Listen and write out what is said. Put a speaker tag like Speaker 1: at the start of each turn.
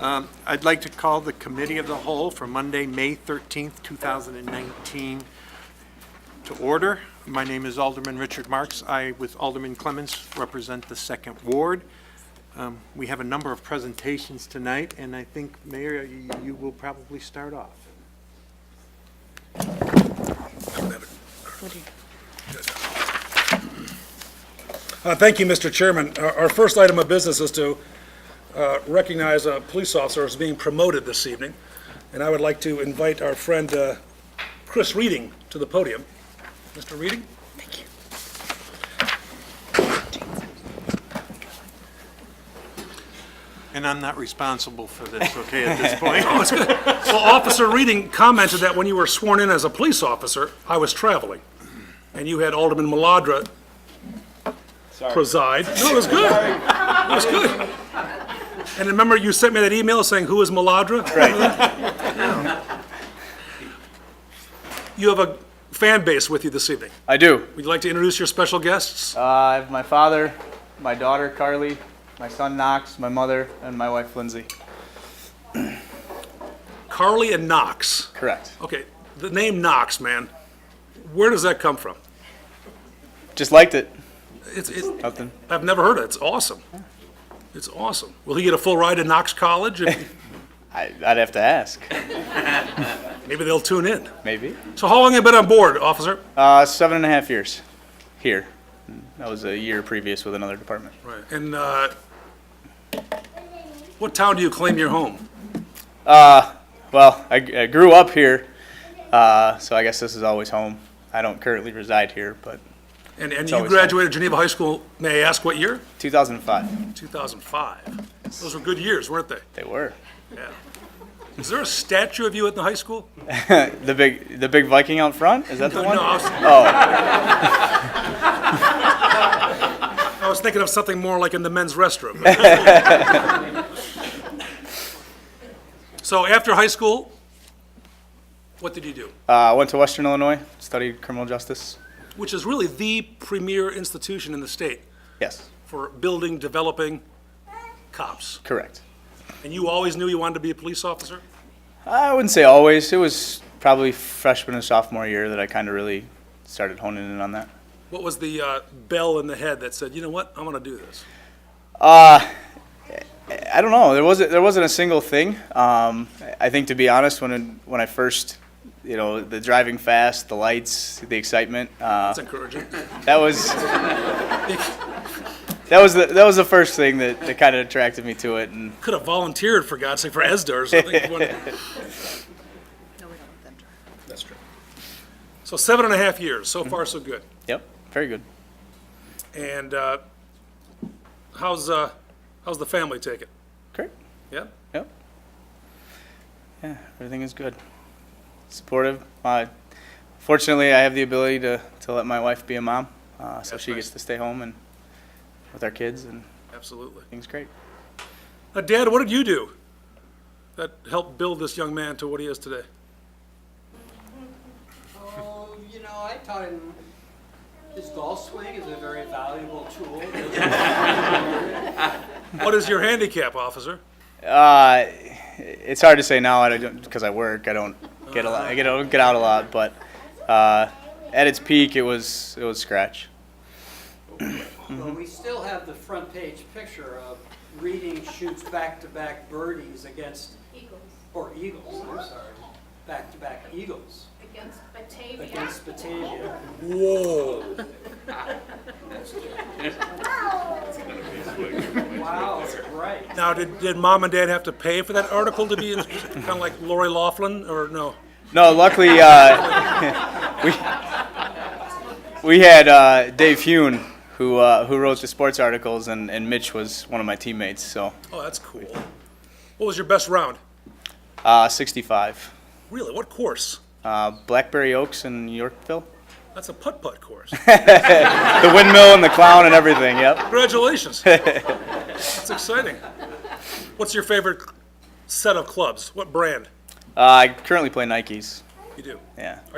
Speaker 1: Um, I'd like to call the Committee of the Whole for Monday, May 13th, 2019, to order. My name is Alderman Richard Marks. I, with Alderman Clements, represent the Second Ward. Um, We have a number of presentations tonight, and I think, Mayor, you you will probably start off.
Speaker 2: Uh, Thank you, Mr. Chairman. Uh, Our our first item of business is to uh, recognize a police officer as being promoted this evening, and I would like to invite our friend uh, Chris Reading to the podium. Mr. Reading?
Speaker 1: And I'm not responsible for this, okay, at this point?
Speaker 2: Oh, it's good. Well, Officer Reading commented that when you were sworn in as a police officer, I was traveling, and you had Alderman Maladra preside. No, it was good. It was good. And remember, you sent me that email saying, "Who is Maladra?" Right. You have a fan base with you this evening.
Speaker 3: I do.
Speaker 2: Would you like to introduce your special guests?
Speaker 3: Uh, I have my father, my daughter Carly, my son Knox, my mother, and my wife Lindsay.
Speaker 2: Carly and Knox.
Speaker 3: Correct.
Speaker 2: Okay, the name Knox, man, where does that come from?
Speaker 3: Just liked it.
Speaker 2: It's, it's,
Speaker 3: Nothing.
Speaker 2: I've never heard of it. It's awesome. It's awesome. Will he get a full ride to Knox College? And
Speaker 3: I, I'd have to ask.
Speaker 2: Maybe they'll tune in.
Speaker 3: Maybe.
Speaker 2: So how long have you been on board, officer?
Speaker 3: Uh, seven and a half years here. That was a year previous with another department.
Speaker 2: Right. And uh, what town do you claim your home?
Speaker 3: Well, I, I grew up here, uh, so I guess this is always home. I don't currently reside here, but
Speaker 2: And, and you
Speaker 3: always home.
Speaker 2: graduated Geneva High School, may I ask what year?
Speaker 3: 2005
Speaker 2: 2005. Those were good years, weren't they?
Speaker 3: they were.
Speaker 2: Yeah. Is there a statue of you at the high school?
Speaker 3: The big, the big Viking out front. Is that the one?
Speaker 2: No, I was,
Speaker 3: Oh.
Speaker 2: I was thinking of something more like in the men's restroom. So after high school, what did you do?
Speaker 3: Uh, I went to Western Illinois, studied criminal justice.
Speaker 2: Which is really the premier institution in the state
Speaker 3: Yes,
Speaker 2: for building, developing cops.
Speaker 3: correct.
Speaker 2: And you always knew you wanted to be a police officer?
Speaker 3: I wouldn't say always. It was probably freshman and sophomore year that I kind of really started honing in on that.
Speaker 2: What was the uh, bell in the head that said, you know what, I'm going to do this?
Speaker 3: I don't know. There wasn't there wasn't a single thing. Um, I- I think to be honest, when when I first, you know, the driving fast, the lights, the excitement, uh,
Speaker 2: That's encouraging.
Speaker 3: that was that was the that was the first thing that, that kind of attracted me to it. And
Speaker 2: Could have volunteered, for God's sake, for ESDA or something. You wanna-
Speaker 4: No, we don't let them drive.
Speaker 2: That's true. So seven and a half years, so far so good.
Speaker 3: yep, very good.
Speaker 2: And uh, how's, uh, how's the family take it?
Speaker 3: Great.
Speaker 2: Yeah?
Speaker 3: Yep. Yeah, everything is good. Supportive. Uh, fortunately, I have the ability to, to let my wife be a mom, uh, so
Speaker 2: That's
Speaker 3: she
Speaker 2: nice.
Speaker 3: gets to stay home and with our kids, and
Speaker 2: Absolutely.
Speaker 3: things great.
Speaker 2: Now, Uh, Dad, what did you do that helped build this young man to what he is today?
Speaker 5: Oh, you know, I taught him his golf swing is a very valuable tool.
Speaker 2: What is your handicap, officer?
Speaker 3: Uh, it's hard to say now, I don't because I work. I don't get a lot. I get I don't get out a lot, but uh, at its peak, it was it was scratch.
Speaker 5: But we still have the front page picture of Reading shoots back-to-back birdies against,
Speaker 6: Eagles
Speaker 5: or eagles, I'm sorry, back-to-back eagles
Speaker 6: against Batavia.
Speaker 5: against Batavia.
Speaker 2: Whoa.
Speaker 5: Wow, right.
Speaker 2: Now, did, did mom and dad have to pay for that article to be kind of like Lori Laughlin, or no?
Speaker 3: No, luckily uh, we we had uh, Dave Hune who uh, who wrote the sports articles, and, and Mitch was one of my teammates. So
Speaker 2: Oh, that's cool. What was your best round?
Speaker 3: uh, 65,
Speaker 2: Really, what course?
Speaker 3: uh, Blackberry Oaks in Yorkville,
Speaker 2: That's a putt-putt course.
Speaker 3: the windmill and the clown and everything. Yep. Uh,
Speaker 2: Congratulations. That's exciting. What's your favorite set of clubs? What brand
Speaker 3: Uh, I currently play Nikes.
Speaker 2: you do?
Speaker 3: Yeah.